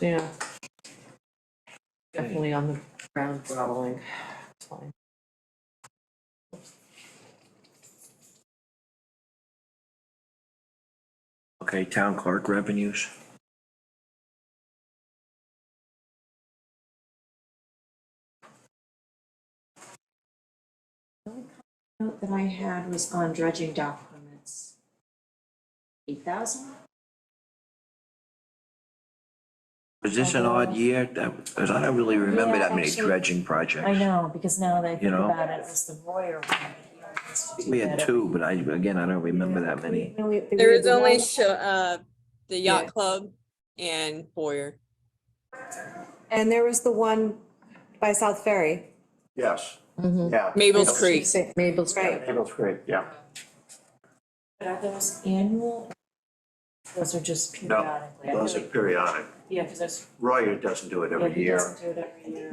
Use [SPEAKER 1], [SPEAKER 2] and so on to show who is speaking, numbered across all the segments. [SPEAKER 1] yeah. Definitely on the ground groveling, it's fine.
[SPEAKER 2] Okay, town clerk revenues.
[SPEAKER 3] Note that I had was on dredging dock permits. Eight thousand?
[SPEAKER 2] Was this an odd year? That, because I don't really remember that many
[SPEAKER 3] Yeah, actually,
[SPEAKER 2] dredging projects.
[SPEAKER 3] I know, because now that I
[SPEAKER 2] You
[SPEAKER 3] think
[SPEAKER 2] know?
[SPEAKER 3] about it, it was the Royer one. that he always did
[SPEAKER 2] We had
[SPEAKER 3] that.
[SPEAKER 2] two, but I, again, I don't remember that many.
[SPEAKER 3] No, we-
[SPEAKER 4] There
[SPEAKER 3] we
[SPEAKER 4] was
[SPEAKER 3] had the
[SPEAKER 4] only
[SPEAKER 3] one-
[SPEAKER 4] sh- uh, the yacht
[SPEAKER 3] Yeah.
[SPEAKER 4] club and Boyer.
[SPEAKER 5] And there was the one by South Ferry,
[SPEAKER 6] Yes, yeah.
[SPEAKER 4] Mabel's Creek.
[SPEAKER 1] St. Mabel's
[SPEAKER 5] right?
[SPEAKER 6] Cable's great, yeah.
[SPEAKER 3] But are those annual? Those are just periodically. I
[SPEAKER 6] Those are
[SPEAKER 3] feel like-
[SPEAKER 6] periodic.
[SPEAKER 3] Yeah, because there's.
[SPEAKER 6] Royer doesn't do it
[SPEAKER 3] yeah,
[SPEAKER 6] every
[SPEAKER 3] he
[SPEAKER 6] year.
[SPEAKER 3] doesn't do it every year.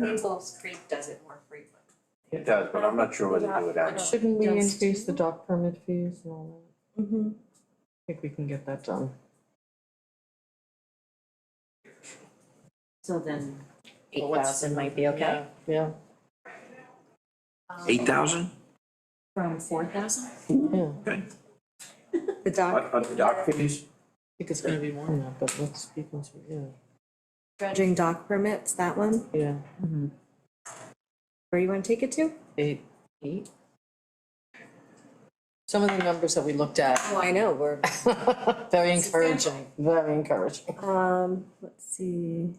[SPEAKER 3] Creek does it more frequently.
[SPEAKER 6] It does, but I'm not sure whether they do it annually.
[SPEAKER 1] Shouldn't we
[SPEAKER 3] Yes.
[SPEAKER 1] increase the dock permit fees and all that?
[SPEAKER 5] Mm-hmm.
[SPEAKER 1] I think we can get that done.
[SPEAKER 3] So then eight
[SPEAKER 1] Well, what's-
[SPEAKER 3] thousand might be okay.
[SPEAKER 1] Yeah,
[SPEAKER 2] Eight thousand?
[SPEAKER 3] From four thousand?
[SPEAKER 1] yeah, I
[SPEAKER 2] Okay.
[SPEAKER 5] The dock
[SPEAKER 6] On the dock fees?
[SPEAKER 1] think it's gonna be more than that, but let's be conservative,
[SPEAKER 5] dredging dock permits, that one,
[SPEAKER 1] yeah, yeah,
[SPEAKER 5] where you wanna take it to?
[SPEAKER 1] eight. Eight? Some of the numbers that we looked at,
[SPEAKER 5] Oh, I know, we're.
[SPEAKER 1] very encouraging, very encouraging.
[SPEAKER 5] Um, let's see.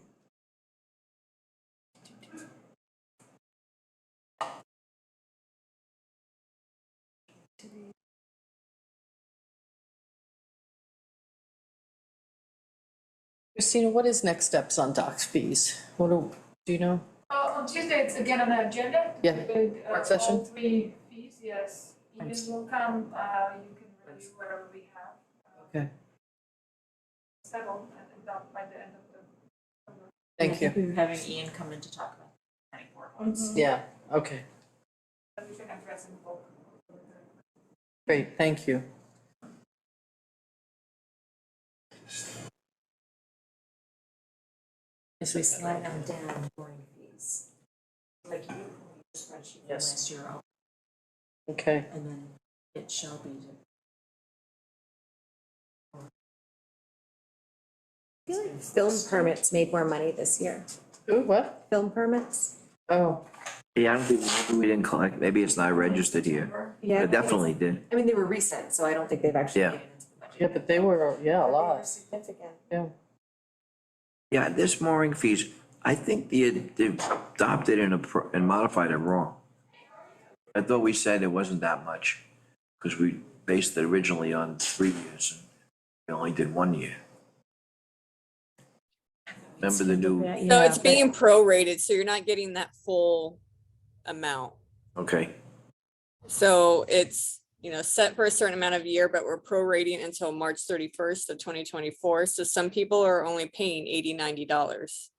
[SPEAKER 1] Christina, what is next steps on dock fees? What do, do you know?
[SPEAKER 7] Uh, on Tuesday, it's again on the agenda.
[SPEAKER 1] Yeah.
[SPEAKER 7] With uh,
[SPEAKER 1] Work session.
[SPEAKER 7] all three fees, yes. Ian
[SPEAKER 1] Wednesday.
[SPEAKER 7] will come, uh, you can review whatever we have. uh,
[SPEAKER 1] Okay.
[SPEAKER 7] Settled and then done by the end of the.
[SPEAKER 1] Thank you.
[SPEAKER 3] We were having Ian come in to talk about the planning board ones.
[SPEAKER 1] Yeah, okay,
[SPEAKER 7] That we can address in both.
[SPEAKER 1] great, thank you.
[SPEAKER 3] As we slide on down during fees. Like you, your spreadsheet from
[SPEAKER 1] Yes.
[SPEAKER 3] last year, I'll-
[SPEAKER 1] Okay,
[SPEAKER 3] and then it shall be. to-
[SPEAKER 5] I feel like film permits made more money this year.
[SPEAKER 1] ooh, what?
[SPEAKER 5] Film permits?
[SPEAKER 1] Oh,
[SPEAKER 2] Yeah, I don't think, maybe we didn't collect, maybe it's not registered here.
[SPEAKER 5] Yeah.
[SPEAKER 2] It definitely did.
[SPEAKER 5] I mean, they were recent, so I don't think they've actually
[SPEAKER 2] Yeah.
[SPEAKER 5] made it into the budget.
[SPEAKER 1] yeah, but they were, yeah, a
[SPEAKER 5] But they were
[SPEAKER 1] lot,
[SPEAKER 5] significant.
[SPEAKER 1] yeah.
[SPEAKER 2] Yeah, this mooring fees, I think the, they adopted and, appro- and modified it wrong. I thought we said it wasn't that much, because we based it originally on three years, and we only did one year. Remember the new,
[SPEAKER 4] So
[SPEAKER 3] Yeah,
[SPEAKER 4] it's
[SPEAKER 3] but-
[SPEAKER 4] being prorated, so you're not getting that full amount.
[SPEAKER 2] okay,
[SPEAKER 4] So it's, you know, set for a certain amount of year, but we're prorating until March thirty-first of twenty twenty-four. So some people are only paying eighty, ninety dollars.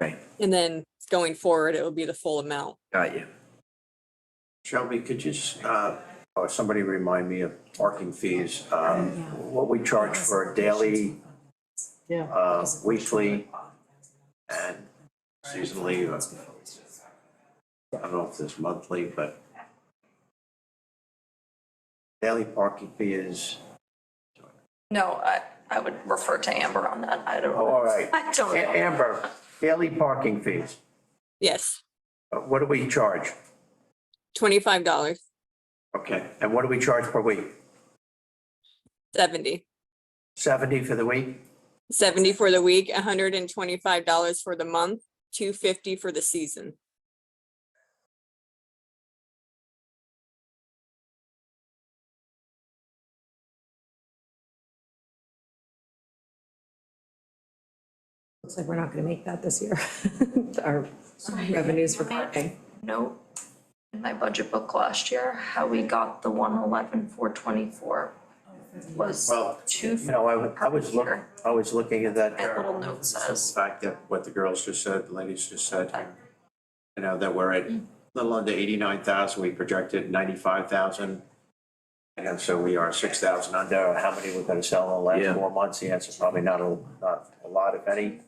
[SPEAKER 2] Right.
[SPEAKER 4] And then going forward, it will be the full amount.
[SPEAKER 2] got you.
[SPEAKER 6] Shelby, could you, s- uh, or somebody remind me of parking fees,
[SPEAKER 3] Oh,
[SPEAKER 6] um, what we charge for a daily,
[SPEAKER 1] Yeah.
[SPEAKER 6] uh, weekly and seasonally, or I don't know if it's monthly, but daily parking fee is,
[SPEAKER 8] No, I, I would refer to Amber on that. I don't.
[SPEAKER 6] oh, all right.
[SPEAKER 8] I don't
[SPEAKER 6] A-
[SPEAKER 8] know.
[SPEAKER 6] Amber, daily parking fees,
[SPEAKER 4] Yes,
[SPEAKER 6] uh, what do we charge?
[SPEAKER 4] twenty-five dollars,
[SPEAKER 6] Okay, and what do we charge per week?
[SPEAKER 4] seventy.
[SPEAKER 6] Seventy for the week?
[SPEAKER 4] 70 for the week, $125 for the month, 250 for the season.
[SPEAKER 5] Looks like we're not gonna make that this year, our revenues for parking.
[SPEAKER 8] Note in my budget book last year, how we got the one eleven, four twenty-four was
[SPEAKER 6] Well,
[SPEAKER 8] two.
[SPEAKER 6] You know, I was, I was looking,
[SPEAKER 8] Here.
[SPEAKER 6] I was looking at that. uh,
[SPEAKER 8] My
[SPEAKER 6] Jared.
[SPEAKER 8] little note says.
[SPEAKER 6] The fact that what the girls just said, the ladies just said, here, you know, that we're at a little under eighty-nine thousand, we projected ninety-five thousand. And so we are six thousand under, how many we're gonna sell in the
[SPEAKER 2] Yeah.
[SPEAKER 6] last four months, the answer probably not a, not a lot, if any.